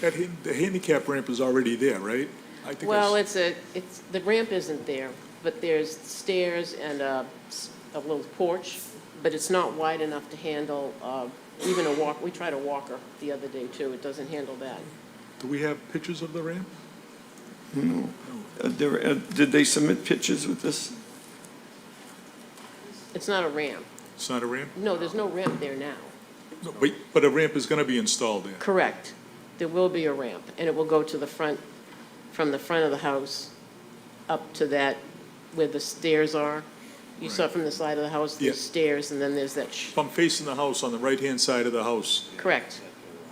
That, han- the handicap ramp is already there, right? I think I Well, s- it's a, it's, the ramp isn't there, but there's stairs and a, s- a little porch, but it's not wide enough to handle, uh, even a walk, we tried a walker the other day too, it doesn't handle that. Do we have pictures of the ramp? Uh, there- uh, Did they submit pictures with this? It's not a ramp. It's not a ramp? No, there's no ramp there now. No, but, but a ramp is gonna be installed there. Correct. There will be a ramp, and it will go to the front, from the front of the house up to that, where the stairs are. You saw from the side of the house, Yeah. there's stairs, and then there's that, sh- If I'm facing the house on the right-hand side of the house, correct.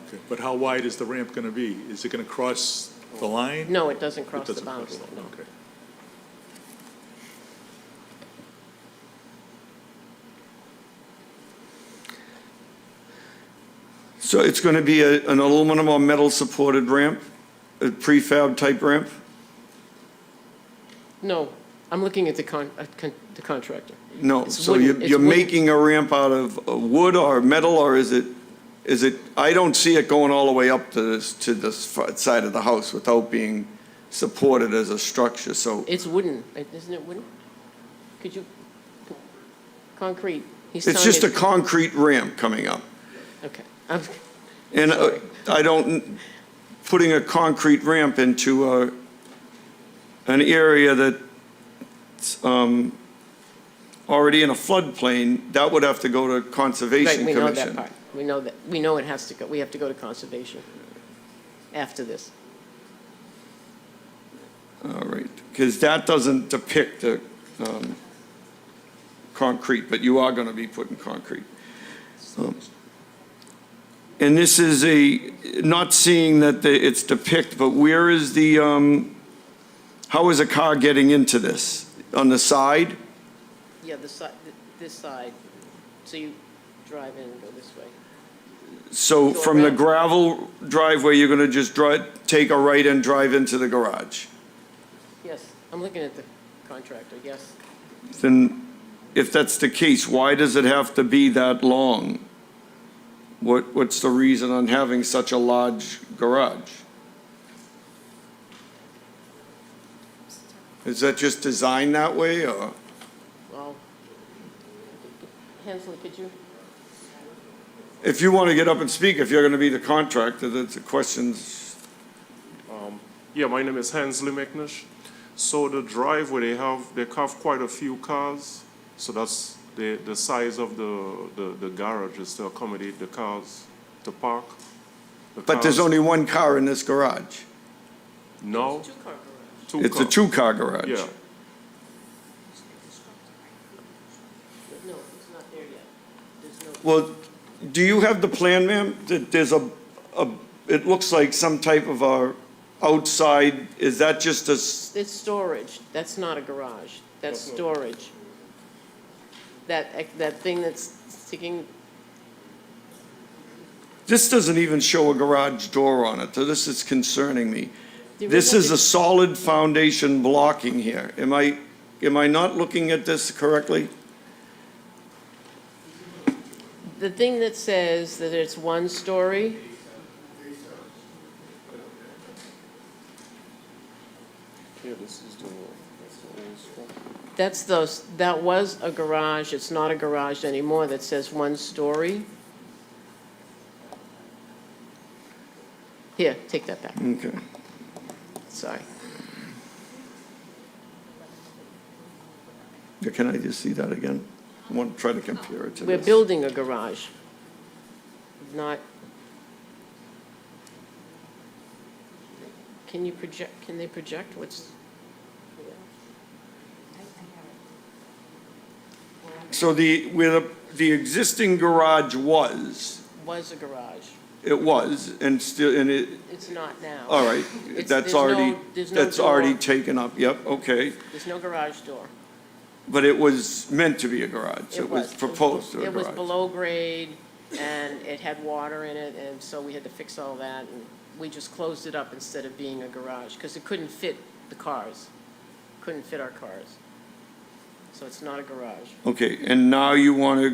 okay, but how wide is the ramp gonna be? Is it gonna cross the line? No, it doesn't It cross the doesn't boundary, cross the no. line, Okay. So it's going to be a- an aluminum or metal-supported ramp, a prefab-type ramp? No, I'm looking at the con, at con- the contractor. No, It's so wooden- you're it's you're wooden. making a ramp out of uh, wood or metal, or is it, is it, I don't see it going all the way up to this, to this fr- side of the house without being supported as a structure, so It's wooden, isn't it wooden? Could you, concrete? He's it's telling just me- a concrete ramp coming up. Okay, I'm, And uh, I don't, putting a concrete ramp into a, an area that's um, already in a floodplain, that would have to go to right, Conservation we know that Commission. part. We know that, we know it has to go, we have to go to conservation after this. All right, because that doesn't depict the um, concrete, but you are going to be putting concrete. Um, And this is a, not seeing that the- it's depict, but where is the, um, how is a car getting into this? On the side? Yeah, the side, this side, so you drive in and go this way. So Go from the around. gravel driveway, you're going to just drive, take a right and drive into the garage? Yes, I'm looking at the contractor, yes. Then, if that's the case, why does it have to be that long? What, what's the reason on having such a large garage? Is that just designed that way, or? Well, Hensley, could you? If you want to get up and speak, if you're going to be the contractor, that's the questions. Yeah, my name is Hensley McNish. So the driveway, they have, they have quite a few cars. So that's the, the size of the, the, the garage is to accommodate the cars to park. The But there's cars- only one car in this garage. No, car two It's a cars. two-car garage. Yeah, No, it's not there yet. There's no. Well, do you have the plan, ma'am? That there's a, a, it looks like some type of a outside, is that just a, s- It's storage, that's not a garage, that's storage. That, that thing that's sticking, this doesn't even show a garage door on it, so this is concerning me. There This isn't is a- a solid foundation blocking here. Am I, am I not looking at this correctly? the thing that says that it's one story, that's those, that was a garage, it's not a garage anymore, that says one story. Here, take that back, Okay. sorry. Yeah, Can I just see that again? I want to try to compare it to We're this. building a garage, not... Can you project, can they project what's, So the, where the, the existing garage was, was a garage? it was, and still, and it, It's not now. All right, It's- that's there's no- already, there's no that's already door. taken up, yep, okay. There's no garage door. But it was meant to be a garage, it was proposed to be a It was garage. below grade, and it had water in it, and so we had to fix all that, and we just closed it up instead of being a garage, because it couldn't fit the cars, couldn't fit our cars. So it's not a garage. Okay, and now you want to